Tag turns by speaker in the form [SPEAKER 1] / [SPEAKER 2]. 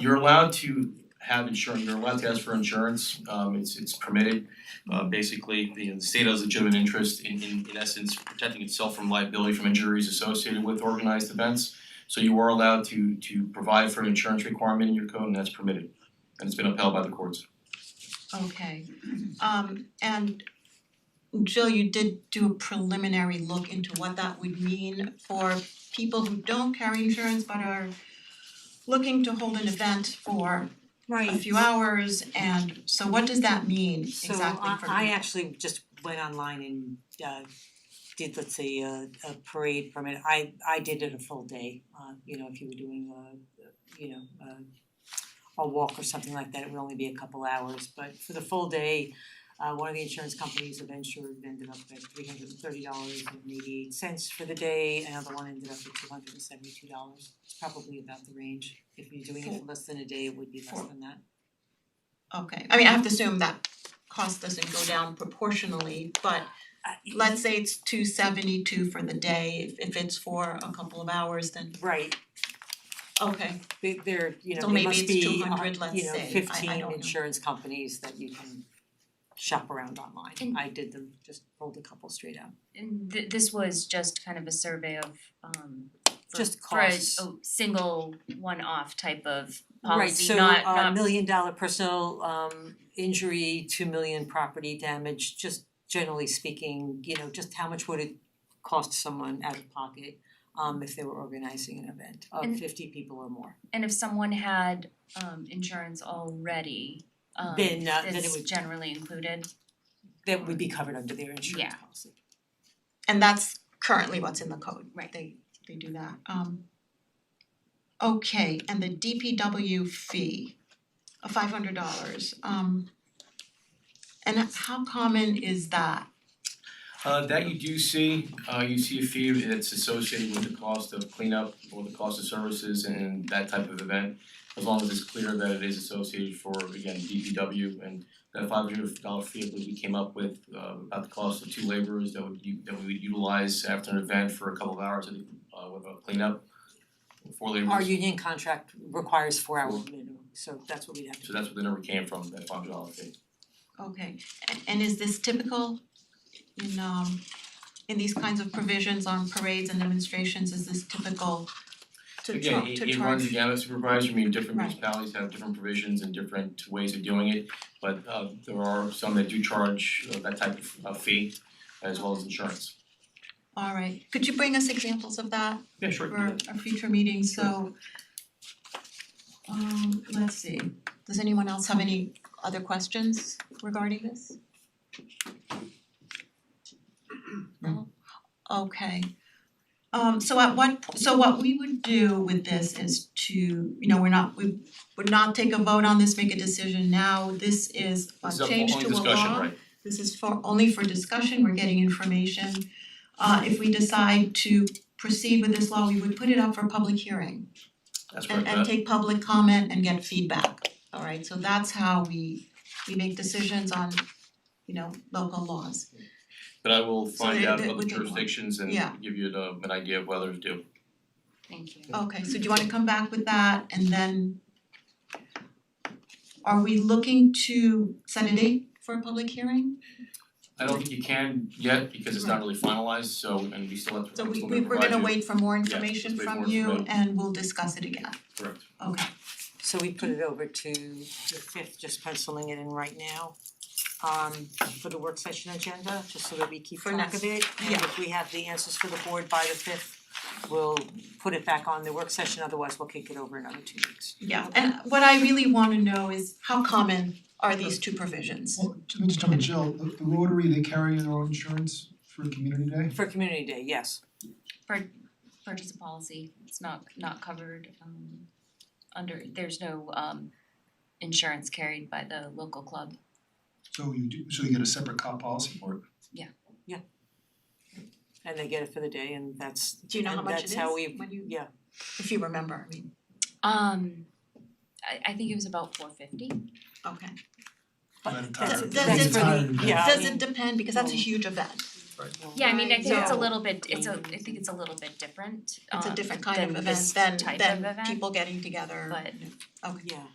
[SPEAKER 1] you're allowed to have insurance, you're allowed to ask for insurance, um it's it's permitted. Uh basically, the the state has legitimate interest in in in essence protecting itself from liability from injuries associated with organized events. So you are allowed to to provide for an insurance requirement in your code and that's permitted. And it's been upheld by the courts.
[SPEAKER 2] Okay, um and Jill, you did do a preliminary look into what that would mean for people who don't carry insurance but are looking to hold an event for a
[SPEAKER 3] Right,
[SPEAKER 2] few hours and so what does that mean
[SPEAKER 3] so
[SPEAKER 2] exactly for
[SPEAKER 3] I
[SPEAKER 2] people?
[SPEAKER 3] I actually just went online and uh did, let's say, a a parade permit, I I did it a full day, uh you know, if you were doing a, you know, a a walk or something like that, it would only be a couple hours, but for the full day, uh one of the insurance companies, Aventure, ended up at three hundred and thirty dollars and eighty eight cents for the day, another one ended up at two hundred and seventy two dollars, it's probably about the range, if you're doing it for less than a day, it would be less
[SPEAKER 2] For-
[SPEAKER 3] than that.
[SPEAKER 2] Okay, I mean, I have to assume that cost doesn't go down proportionally, but
[SPEAKER 3] Uh, y-
[SPEAKER 2] let's say it's two seventy two for the day, if if it's for a couple of hours, then
[SPEAKER 3] Right,
[SPEAKER 2] okay.
[SPEAKER 3] they they're, you know,
[SPEAKER 2] So
[SPEAKER 3] there
[SPEAKER 2] maybe
[SPEAKER 3] must
[SPEAKER 2] it's
[SPEAKER 3] be,
[SPEAKER 2] 200,
[SPEAKER 3] uh,
[SPEAKER 2] let's
[SPEAKER 3] you know,
[SPEAKER 2] say. I- I
[SPEAKER 3] fifteen
[SPEAKER 2] don't know.
[SPEAKER 3] insurance companies that you can shop around online.
[SPEAKER 4] And-
[SPEAKER 3] I did them, just pulled a couple straight out.
[SPEAKER 4] And th- this was just kind of a survey of um for-
[SPEAKER 3] Just
[SPEAKER 4] for a
[SPEAKER 3] costs.
[SPEAKER 4] a single one-off type of
[SPEAKER 3] Right,
[SPEAKER 4] policy,
[SPEAKER 3] so
[SPEAKER 4] not
[SPEAKER 3] uh
[SPEAKER 4] not
[SPEAKER 3] million dollar personal um injury, two million property damage, just generally speaking, you know, just how much would it cost someone out of pocket um if they were organizing an event of
[SPEAKER 4] And-
[SPEAKER 3] fifty people or more?
[SPEAKER 4] and if someone had um insurance already, um
[SPEAKER 3] Then, uh, then it
[SPEAKER 4] it's
[SPEAKER 3] would-
[SPEAKER 4] generally included,
[SPEAKER 3] That would be covered under their insurance
[SPEAKER 4] Yeah.
[SPEAKER 3] policy.
[SPEAKER 2] And that's currently what's in the code, right, they they do that, um. Okay, and the DPW fee of five hundred dollars, um. And how common is that?
[SPEAKER 1] Uh that you do see, uh you see a fee that's associated with the cost of cleanup or the cost of services and that type of event. As long as it's clear that it is associated for, again, DPW and that five hundred dollar fee that we came up with uh about the cost of two laborers that would u- that we would utilize after an event for a couple of hours of uh with a cleanup. Four
[SPEAKER 3] Our
[SPEAKER 1] laborers,
[SPEAKER 3] union contract requires four hour minimum, so that's what we'd have to do.
[SPEAKER 1] so that's where the number came from, that five hundred dollar fee.
[SPEAKER 2] Okay, and and is this typical in um in these kinds of provisions on parades and demonstrations, is this typical to char- to charge?
[SPEAKER 1] Again, it it runs the gamut supervisor, I mean, different
[SPEAKER 2] Right.
[SPEAKER 1] municipalities have different provisions and different ways of doing it. But uh there are some that do charge uh, that type of uh, fee as well as insurance.
[SPEAKER 2] Alright, could you bring us examples of that?
[SPEAKER 1] Yeah, sure.
[SPEAKER 2] for a future meeting, so um let's see, does anyone else have any other questions regarding this? No? Okay. Um so at what, po- so what we would do with this is to, you know, we're not, we would not take a vote on this, make a decision now, this is a
[SPEAKER 1] This is a-
[SPEAKER 2] change
[SPEAKER 1] only
[SPEAKER 2] to a law.
[SPEAKER 1] discussion, right?
[SPEAKER 2] This is for only for discussion, we're getting information. Uh if we decide to proceed with this law, we would put it up for public hearing
[SPEAKER 1] That's right,
[SPEAKER 2] and and
[SPEAKER 1] Beth.
[SPEAKER 2] take public comment and get feedback. Alright, so that's how we we make decisions on, you know, local laws.
[SPEAKER 1] but I will
[SPEAKER 2] So
[SPEAKER 1] find
[SPEAKER 2] they-
[SPEAKER 1] out
[SPEAKER 2] they-
[SPEAKER 1] other
[SPEAKER 2] we can-
[SPEAKER 1] jurisdictions and
[SPEAKER 2] yeah.
[SPEAKER 1] give you the an idea of whether it's due.
[SPEAKER 4] thank you.
[SPEAKER 2] Okay, so do you wanna come back with that and then are we looking to set a date for a public hearing?
[SPEAKER 1] I don't think you can yet because it's not really finalized, so and we still have to
[SPEAKER 2] So we
[SPEAKER 1] still
[SPEAKER 2] we
[SPEAKER 1] gonna
[SPEAKER 2] we're
[SPEAKER 1] provide
[SPEAKER 2] gonna
[SPEAKER 1] you-
[SPEAKER 2] wait for more information
[SPEAKER 1] wait for
[SPEAKER 2] from
[SPEAKER 1] more
[SPEAKER 2] you
[SPEAKER 1] information.
[SPEAKER 2] and we'll discuss it again.
[SPEAKER 1] Correct.
[SPEAKER 2] Okay,
[SPEAKER 3] So we put it over to the fifth, just penciling it in right now. Um for the work session agenda, just so that we keep
[SPEAKER 2] For
[SPEAKER 3] track of it, and
[SPEAKER 2] yeah.
[SPEAKER 3] if we have the answers for the board by the fifth, we'll put it back on the work session, otherwise we'll kick it over another two weeks.
[SPEAKER 2] Yeah, and what I really wanna know is how common are these two provisions?
[SPEAKER 5] Well, let me just jump in, Jill, the the Rotary, they carry their own insurance for Community Day?
[SPEAKER 3] For community day, yes,
[SPEAKER 4] Purchase a policy, it's not not covered um under, there's no um insurance carried by the local club.
[SPEAKER 5] So you do, so you get a separate cop policy for it?
[SPEAKER 3] and they get it for the day and that's
[SPEAKER 2] Do you know how
[SPEAKER 3] and
[SPEAKER 2] much it
[SPEAKER 3] that's
[SPEAKER 2] is?
[SPEAKER 3] how we-
[SPEAKER 2] When you,
[SPEAKER 3] yeah,
[SPEAKER 2] if you remember, I mean,
[SPEAKER 4] Um I I think it was about four fifty.
[SPEAKER 2] okay.
[SPEAKER 5] By the
[SPEAKER 3] That's-
[SPEAKER 5] time-
[SPEAKER 2] does
[SPEAKER 5] by the
[SPEAKER 2] it-
[SPEAKER 5] time-
[SPEAKER 3] yeah. I
[SPEAKER 2] Does Oh.
[SPEAKER 3] mean-
[SPEAKER 2] it depend, because that's a huge event,
[SPEAKER 4] Yeah, I mean, I think it's a
[SPEAKER 2] Right.
[SPEAKER 4] little bit, it's a, I think it's a little bit different,
[SPEAKER 2] It's a
[SPEAKER 4] um,
[SPEAKER 2] different kind
[SPEAKER 4] than
[SPEAKER 2] of
[SPEAKER 4] this
[SPEAKER 2] event than
[SPEAKER 4] type of
[SPEAKER 2] than
[SPEAKER 4] event,
[SPEAKER 2] people getting together.
[SPEAKER 4] but
[SPEAKER 3] Yeah.